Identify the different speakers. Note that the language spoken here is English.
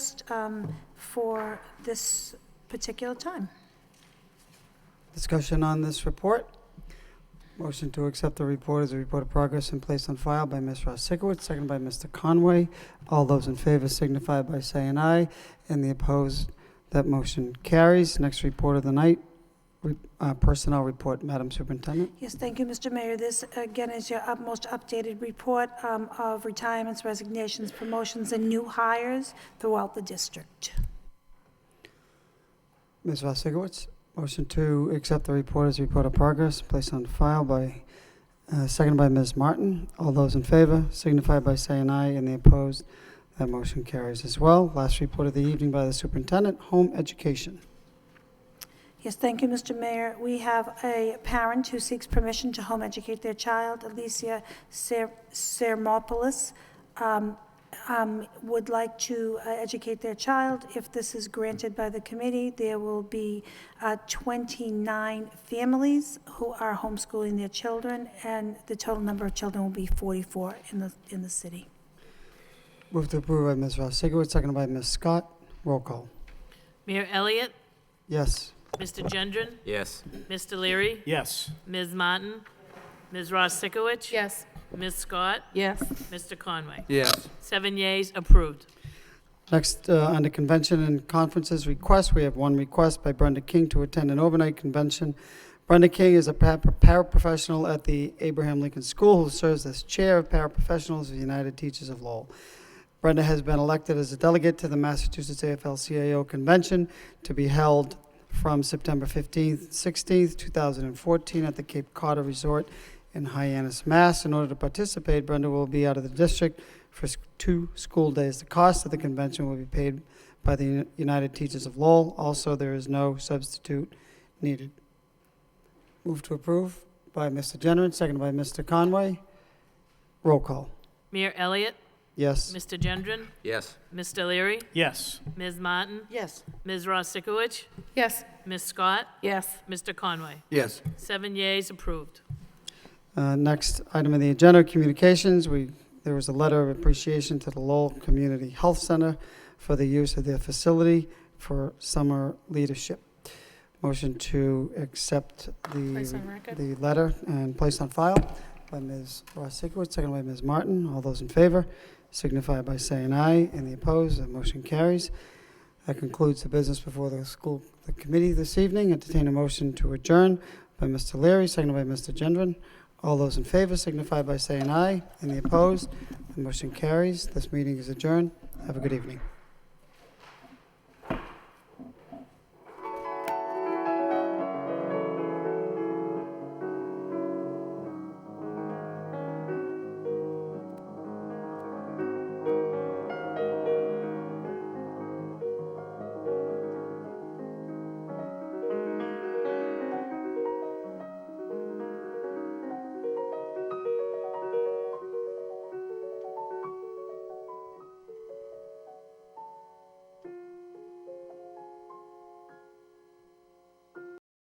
Speaker 1: um, for this particular time.
Speaker 2: Discussion on this report. Motion to accept the report as a report of progress and place on file by Ms. Ross Sikowitz, seconded by Mr. Conway. All those in favor signify by saying aye, and the opposed, that motion carries. Next report of the night, re- uh, Personnel Report, Madam Superintendent.
Speaker 1: Yes, thank you, Mr. Mayor. This, again, is your up- most updated report um, of retirements, resignations, promotions, and new hires throughout the district.
Speaker 2: Ms. Ross Sikowitz, motion to accept the report as a report of progress, place on file by, uh, seconded by Ms. Martin. All those in favor signify by saying aye, and the opposed, that motion carries as well. Last report of the evening by the superintendent, home education.
Speaker 1: Yes, thank you, Mr. Mayor. We have a parent who seeks permission to home educate their child. Alicia Ser- Sermopoulos um, um, would like to uh, educate their child. If this is granted by the committee, there will be uh, 29 families who are homeschooling their children, and the total number of children will be 44 in the, in the city.
Speaker 2: Move to approve by Ms. Ross Sigurd, seconded by Ms. Scott. Roll call.
Speaker 3: Mayor Elliott,
Speaker 2: Yes.
Speaker 3: Mr. Gendron,
Speaker 4: Yes.
Speaker 3: Mr. Leary,
Speaker 5: Yes.
Speaker 3: Ms. Martin, Ms. Ross Sikowicz.
Speaker 6: Yes.
Speaker 3: Ms. Scott,
Speaker 6: Yes.
Speaker 3: Mr. Conway.
Speaker 4: Yes.
Speaker 3: Seven yeas, approved.
Speaker 2: Next, uh, under convention and conferences requests, we have one request by Brenda King to attend an overnight convention. Brenda King is a pa- paraprofessional at the Abraham Lincoln School who serves as Chair of Paraprofessionals of the United Teachers of Lowell. Brenda has been elected as a delegate to the Massachusetts AFL-CIO Convention to be held from September 15th, 16th, 2014 at the Cape Cod Resort in Hyannis, Mass. In order to participate, Brenda will be out of the district for s- two school days. The cost of the convention will be paid by the Uni- United Teachers of Lowell. Also, there is no substitute needed. Move to approve by Mr. Generin, seconded by Mr. Conway. Roll call.
Speaker 3: Mayor Elliott,
Speaker 2: Yes.
Speaker 3: Mr. Gendron,
Speaker 4: Yes.
Speaker 3: Mr. Leary,
Speaker 5: Yes.
Speaker 3: Ms. Martin,
Speaker 6: Yes.
Speaker 3: Ms. Ross Sikowicz,
Speaker 6: Yes.
Speaker 3: Ms. Scott,
Speaker 6: Yes.
Speaker 3: Mr. Conway.
Speaker 4: Yes.
Speaker 3: Seven yeas, approved.
Speaker 2: Uh, Next item on the agenda, communications. We, there was a letter of appreciation to the Lowell Community Health Center for the use of their facility for summer leadership. Motion to accept
Speaker 6: Place on
Speaker 2: the,
Speaker 6: record?
Speaker 2: the letter and place on file by Ms. Ross Sikowitz, seconded by Ms. Martin. All those in favor signify by saying aye. Any opposed? The motion carries. That concludes the business before the school, the committee this evening. Entertain a motion to adjourn by Mr. Leary, seconded by Mr. Gendron. All those in favor signify by saying aye. Any opposed? The motion carries. This meeting is adjourned. Have a good evening.